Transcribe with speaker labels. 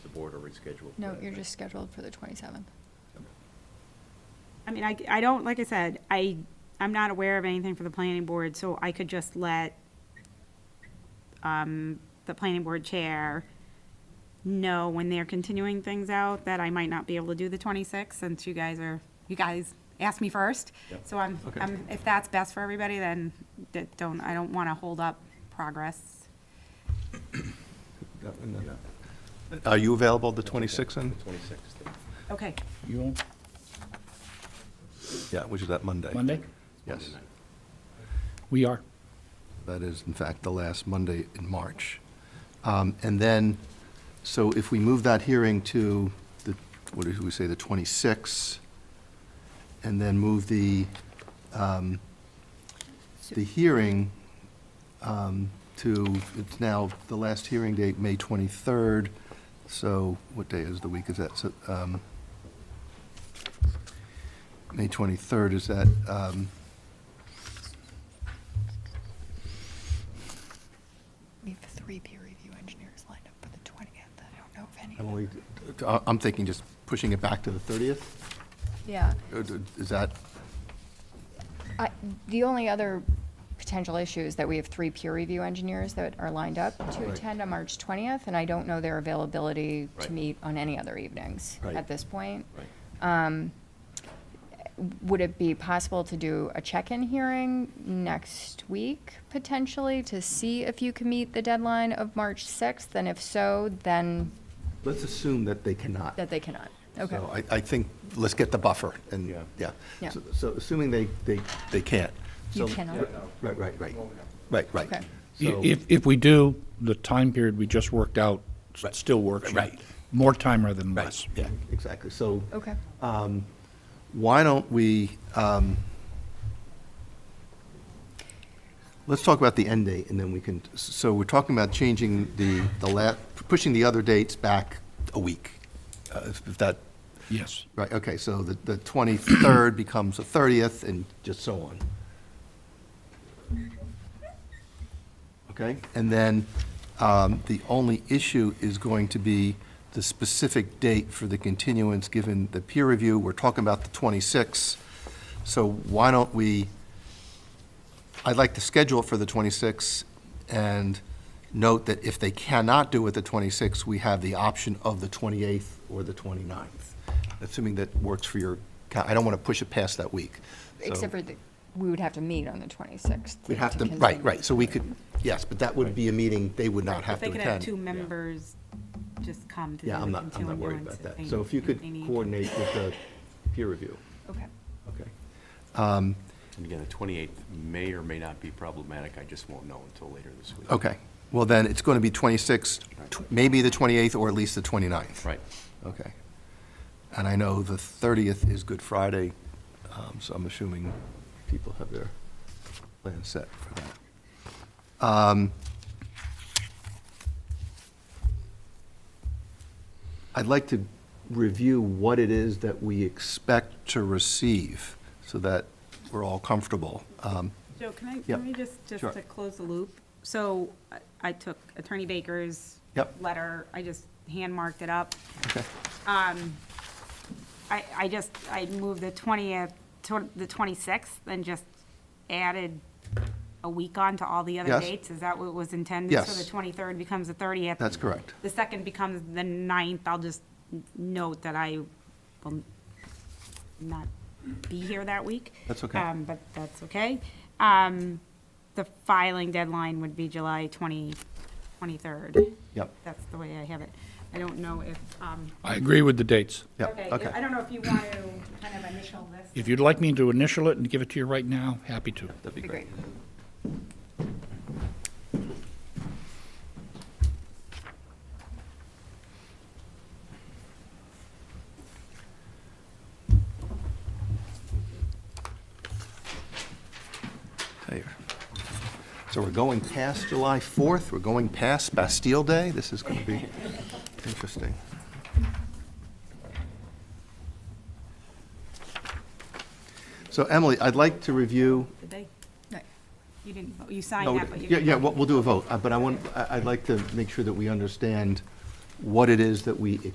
Speaker 1: board or reschedule?
Speaker 2: No, you're just scheduled for the 27th.
Speaker 3: I mean, I, I don't, like I said, I, I'm not aware of anything for the planning board, so I could just let um, the planning board chair know when they're continuing things out that I might not be able to do the 26th, since you guys are, you guys asked me first.
Speaker 1: Yep.
Speaker 3: So I'm,
Speaker 1: Okay.
Speaker 3: I'm, if that's best for everybody, then that don't, I don't want to hold up progress.
Speaker 4: Are you available the 26th and?
Speaker 1: Twenty-sixth.
Speaker 3: Okay.
Speaker 5: You on
Speaker 4: Yeah, which is that Monday.
Speaker 5: Monday?
Speaker 4: Yes.
Speaker 5: We are.
Speaker 4: That is, in fact, the last Monday in March. Um, And then, so if we move that hearing to the, what did we say, the 26th, and then move the, um, the hearing um, to, it's now, the last hearing date, May 23rd, so what day is the week is that? So, um, May 23rd, is that, um,
Speaker 2: We have three peer review engineers lined up for the 20th. I don't know if any.
Speaker 4: Emily, I- uh, I'm thinking just pushing it back to the 30th?
Speaker 2: Yeah.
Speaker 4: Or d- Is that,
Speaker 2: I- The only other potential issue is that we have three peer review engineers that are lined up to
Speaker 4: Right.
Speaker 2: attend on March 20th, and I don't know their availability
Speaker 1: Right.
Speaker 2: to meet on any other evenings
Speaker 4: Right.
Speaker 2: at this point.
Speaker 1: Right.
Speaker 2: Would it be possible to do a check-in hearing next week, potentially, to see if you can meet the deadline of March 6th? And if so, then
Speaker 4: let's assume that they cannot.
Speaker 2: that they cannot. Okay.
Speaker 4: So I, I think, let's get the buffer, and,
Speaker 1: Yeah.
Speaker 4: yeah.
Speaker 2: Yeah.
Speaker 4: So- So assuming they, they, they can't.
Speaker 2: You
Speaker 4: So-
Speaker 2: cannot?
Speaker 4: Right, right, right, right, right.
Speaker 2: Okay.
Speaker 4: So-
Speaker 5: If, if we do, the time period we just worked out s-
Speaker 4: Right.
Speaker 5: still works.
Speaker 4: Right.
Speaker 5: More time rather than
Speaker 4: Right,
Speaker 5: less.
Speaker 4: yeah, exactly. So
Speaker 2: Okay.
Speaker 4: why don't we, um, let's talk about the end date, and then we can, so we're talking about changing the, the la, pushing the other dates back a week, uh, if if that
Speaker 5: Yes.
Speaker 4: Right, okay, so the, the 23rd becomes the 30th and just so on. Okay, and then um, the only issue is going to be the specific date for the continuance, given the peer review, we're talking about the 26th. So why don't we, I'd like to schedule it for the 26th and note that if they cannot do it the 26th, we have the option of the 28th or the 29th, assuming that works for your, ca- I don't want to push it past that week. So-
Speaker 2: Except for, the- we would have to meet on the 26th.
Speaker 4: We'd have to, right,
Speaker 2: continue.
Speaker 4: right, so we could, yes, but that would be a meeting they would not have to
Speaker 3: They could have two
Speaker 4: attend.
Speaker 3: members just come to do the
Speaker 4: Yeah, I'm not, I'm not worried
Speaker 3: continuance
Speaker 4: about that.
Speaker 3: they-
Speaker 4: So if you could
Speaker 3: they need to.
Speaker 4: coordinate with the peer review,
Speaker 2: Okay.
Speaker 4: okay?
Speaker 1: And again, the twenty-eighth may or may not be problematic, I just won't know until later this week.
Speaker 4: Okay, well then, it's going to be 26, tw- maybe the 28th or at least the 29th.
Speaker 1: Right.
Speaker 4: Okay. And I know the 30th is Good Friday, um, so I'm assuming people have their plans set for that. Um, I'd like to review what it is that we expect to receive so that we're all comfortable. Um,
Speaker 3: Joe, can I,
Speaker 4: Yeah.
Speaker 3: can we just, just
Speaker 4: Sure.
Speaker 3: to close the loop? So I- I took Attorney Baker's
Speaker 4: Yep.
Speaker 3: letter, I just hand marked it up.
Speaker 4: Okay.
Speaker 3: Um, I, I just, I moved the twentieth, the twenty-sixth, and just added a week on to all the other
Speaker 4: Yes.
Speaker 3: dates? Is that what was intended? So
Speaker 4: Yes.
Speaker 3: the twenty-third becomes the thirtieth?
Speaker 4: That's correct.
Speaker 3: The second becomes the ninth. I'll just n- note that I will not be here that week.
Speaker 4: That's okay.
Speaker 3: Um, But that's okay. Um, The filing deadline would be July 20, 23rd.
Speaker 4: Yep.
Speaker 3: That's the way I have it. I don't know if, um,
Speaker 5: I agree with the dates.
Speaker 4: Yep,
Speaker 3: okay, I don't know if you want to kind of initial this.
Speaker 5: If you'd like me to initial it and give it to you right now, happy to.
Speaker 1: That'd be great.
Speaker 4: There. So we're going past July 4th, we're going past Bastille Day, this is going to be interesting. So Emily, I'd like to review,
Speaker 3: Did they?
Speaker 2: Right.
Speaker 3: You didn't, vote. you signed
Speaker 4: no,
Speaker 3: that, but you
Speaker 4: yeah,
Speaker 3: didn't.
Speaker 4: yeah, we'll we'll do a vote, uh, but I want, I- I'd like to make sure that we understand what it is that we